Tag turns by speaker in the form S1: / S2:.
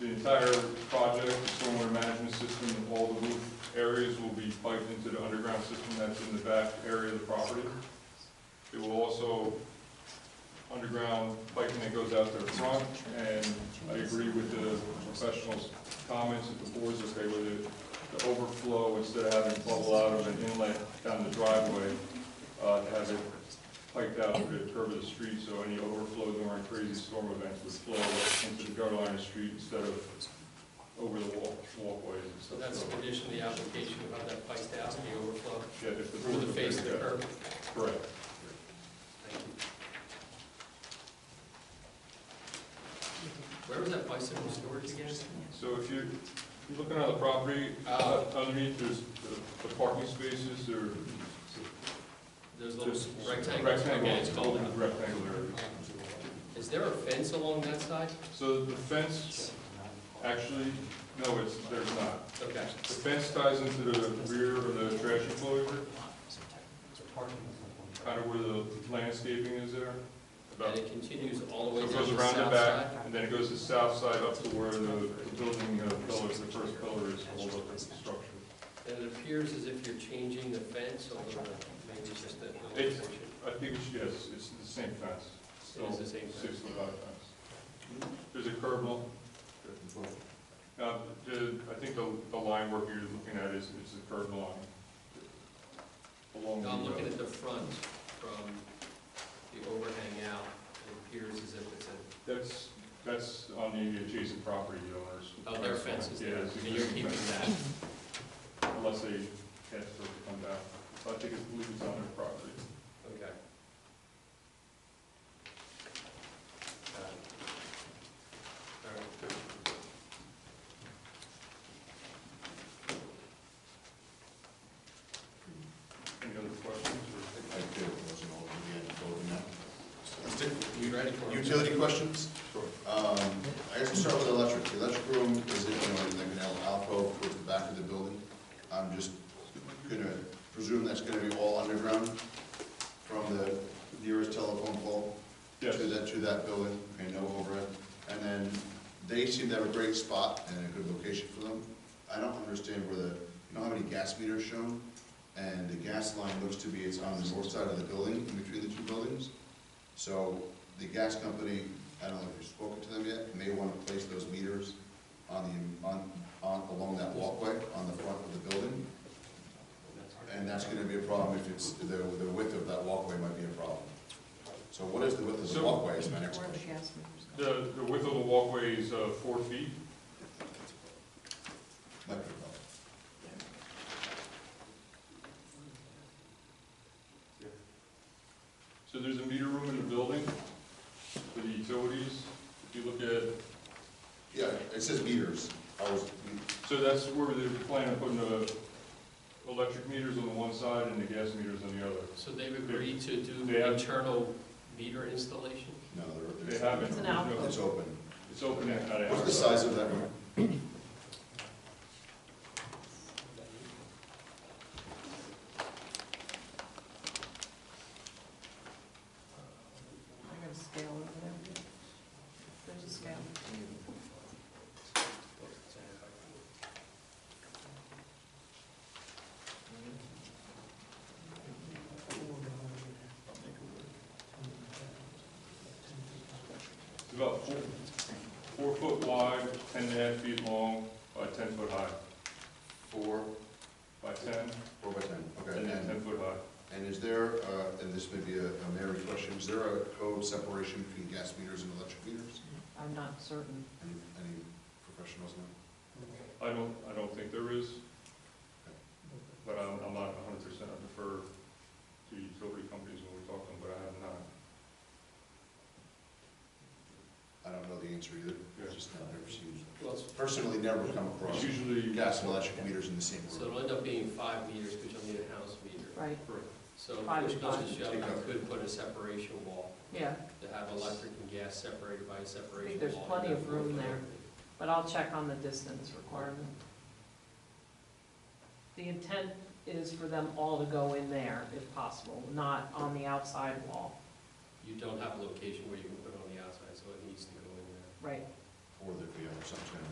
S1: The entire project, the stormwater management system, all the roof areas will be piped into the underground system that's in the back area of the property. It will also, underground piping that goes out there front, and I agree with the professionals' comments, if the board's okay with it, the overflow, instead of having it bubble out of an inlet down the driveway, uh, to have it piped out to the curb of the street, so any overflow during crazy storm events would flow into the gutter line of the street instead of over the walk, walkways and
S2: So
S1: stuff.
S2: that's a condition of the application, how that pipes down, the overflow,
S1: Yeah, if the
S2: through
S1: board's
S2: the
S1: okay
S2: face of
S1: with
S2: the
S1: that.
S2: curb.
S1: Correct.
S2: Where was that bicycle storage again?
S1: So if you, you're looking at the property, uh, underneath there's the- the parking spaces, there.
S2: Those little
S1: there's
S2: rectangles, okay, it's called out.
S1: Rectangular.
S2: Is there a fence along that side?
S1: So the fence, actually, no, it's, there's not.
S2: Okay.
S1: The fence ties into the rear of the trash enclosure, kind of where the landscaping is there.
S2: And
S1: About,
S2: it continues all the
S1: so
S2: way
S1: it
S2: down
S1: goes
S2: the
S1: around the
S2: south
S1: back,
S2: side?
S1: and then it goes to the south side up to where the the building uh, pillars, the first pillar is, hold up the structure.
S2: And it appears as if you're changing the fence a little bit, maybe it's just that little
S1: It's-
S2: portion.
S1: I think it's, yes, it's the same fence.
S2: It is the same fence.
S1: Six foot high fence. There's a curb wall. Uh, the, I think the, the line work you're looking at is, is the curb line. Along
S2: Now, I'm
S1: the,
S2: looking
S1: uh,
S2: at the front from the overhang out, it appears as if it's a,
S1: that's, that's on the adjacent property owners.
S2: oh, their fence is
S1: Yeah,
S2: there,
S1: it's
S2: and you're keeping that.
S1: that. Unless they ask for it to come down. So I think it's, believe it's on their property.
S2: Okay.
S1: Any other questions? or-
S3: I do, it wasn't all in the end, voting now.
S2: You ready for it?
S3: Utility questions?
S1: Sure.
S3: Um, I guess we'll start with electric. The electric room is in, you know, in like an al- alcove toward the back of the building. I'm just gonna presume that's gonna be all underground from the nearest telephone pole to
S1: Yes.
S3: that, to that building, okay, no overhead. And then they seem to have a great spot and a good location for them. I don't understand where the, you know how many gas meters shown? And the gas line looks to be, it's on the north side of the building, in between the two buildings. So the gas company, I don't know if you've spoken to them yet, may want to place those meters on the, on, on, along that walkway on the front of the building. And that's gonna be a problem if it's, the, the width of that walkway might be a problem. So what is the width of the
S1: So-
S3: walkway is my next
S4: Where the
S3: question.
S4: gas meters go.
S1: The, the width of the walkway is, uh, four feet.
S3: Might be a problem.
S1: So there's a meter room in the building for the utilities. If you look at,
S3: Yeah, it says meters. I was,
S1: so that's where they're planning on putting the electric meters on the one side and the gas meters on the other.
S2: So they've agreed to do
S1: They have-
S2: internal meter installation?
S3: no,
S1: They
S3: they're, they're,
S1: haven't.
S4: It's an out.
S1: No,
S3: it's open.
S1: It's open and not out.
S3: What's the size of that room?
S4: I got a scale over there. There's a scale.
S1: It's about four, four foot wide, ten and a half feet long, by ten foot high,
S3: Four,
S1: by ten,
S3: four by ten, okay.
S1: and then
S3: And,
S1: ten foot high.
S3: and is there, uh, and this may be a, a Mary question, is there a code separation between gas meters and electric meters?
S4: I'm not certain.
S3: Any, any professionals know?
S1: I don't, I don't think there is, but I'm, I'm not hundred percent, I defer to utility companies when we talk to them, but I have not.
S3: I don't know the answer either,
S1: Yeah.
S3: just not ever seen.
S2: Well,
S3: Personally, never come across
S1: It's usually.
S3: gas and electric meters in the same
S2: So
S3: room.
S2: it'll end up being five meters, which will need a house meter.
S4: Right,
S2: So
S4: Five
S2: push
S4: is
S2: comes to
S4: fine.
S2: shove, you could put a separation wall
S4: yeah,
S2: to have electric and gas separated by a separation wall.
S4: there's plenty of room there.
S2: there.
S4: but I'll check on the distance requirement. The intent is for them all to go in there if possible, not on the outside wall.
S2: You don't have a location where you can put it on the outside, so it needs to go in there.
S4: Right,
S3: Or there'd be some kind